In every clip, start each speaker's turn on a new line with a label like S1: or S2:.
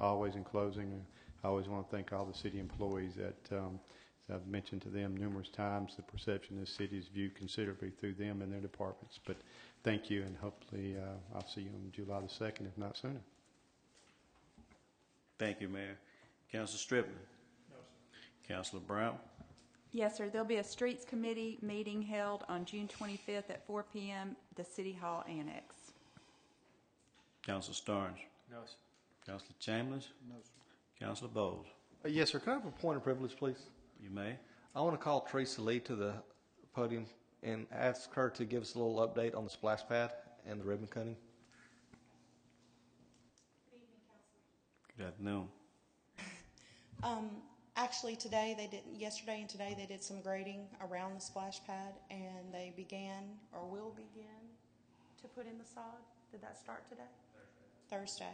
S1: Always in closing, I always want to thank all the city employees that, um, as I've mentioned to them numerous times, the perception of the city is viewed considerably through them and their departments. But thank you, and hopefully, uh, I'll see you on July the 2nd, if not sooner.
S2: Thank you, Mayor. Counselor Striplin? No, sir. Counselor Brown?
S3: Yes, sir. There'll be a Streets Committee meeting held on June 25th at 4 PM, the City Hall Annex.
S2: Counselor Starnes?
S4: No, sir.
S2: Counselor Chambers?
S4: No, sir.
S2: Counselor Bowles?
S5: Uh, Yes, sir. Could I have a point of privilege, please?
S2: You may.
S5: I want to call Teresa Lee to the podium and ask her to give us a little update on the splash pad and the ribbon cutting.
S2: Good afternoon.
S6: Um, actually, today they did. Yesterday and today they did some grading around the splash pad, and they began or will begin to put in the sod. Did that start today? Thursday.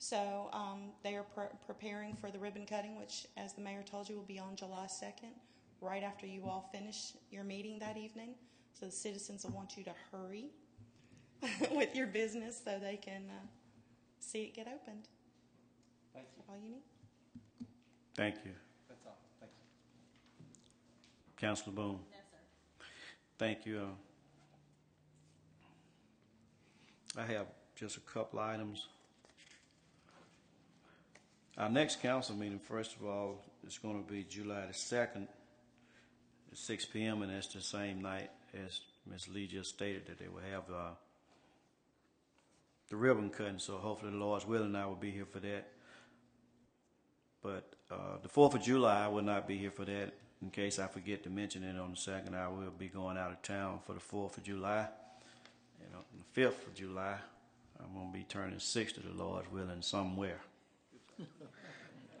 S6: So um, they are pre- preparing for the ribbon cutting, which, as the mayor told you, will be on July second, right after you all finish your meeting that evening. So the citizens will want you to hurry with your business so they can uh, see it get opened. Thank you. All you need.
S2: Thank you.
S5: That's all. Thank you.
S2: Counselor Boone? Yes, sir. Thank you. Uh, I have just a couple items. Our next council meeting, first of all, is going to be July the second, at six P M. And that's the same night as Ms. Lee just stated that they will have, uh, the ribbon cutting. So hopefully the Lord's willing, I will be here for that. But uh, the Fourth of July, I will not be here for that. In case I forget to mention it on the second, I will be going out of town for the Fourth of July. And on the Fifth of July, I'm gonna be turning sixty, the Lord's willing, somewhere.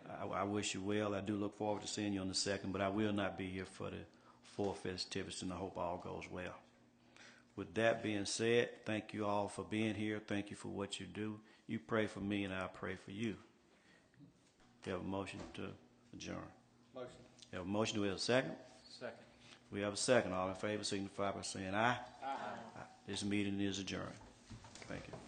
S2: I, I wish you well. I do look forward to seeing you on the second, but I will not be here for the four festivities, and I hope all goes well. With that being said, thank you all for being here. Thank you for what you do. You pray for me, and I pray for you. We have a motion to adjourn.
S5: Motion.
S2: We have a motion, do we have a second?
S4: Second.
S2: We have a second. All in favor signify by saying aye. Aye. This meeting is adjourned. Thank you.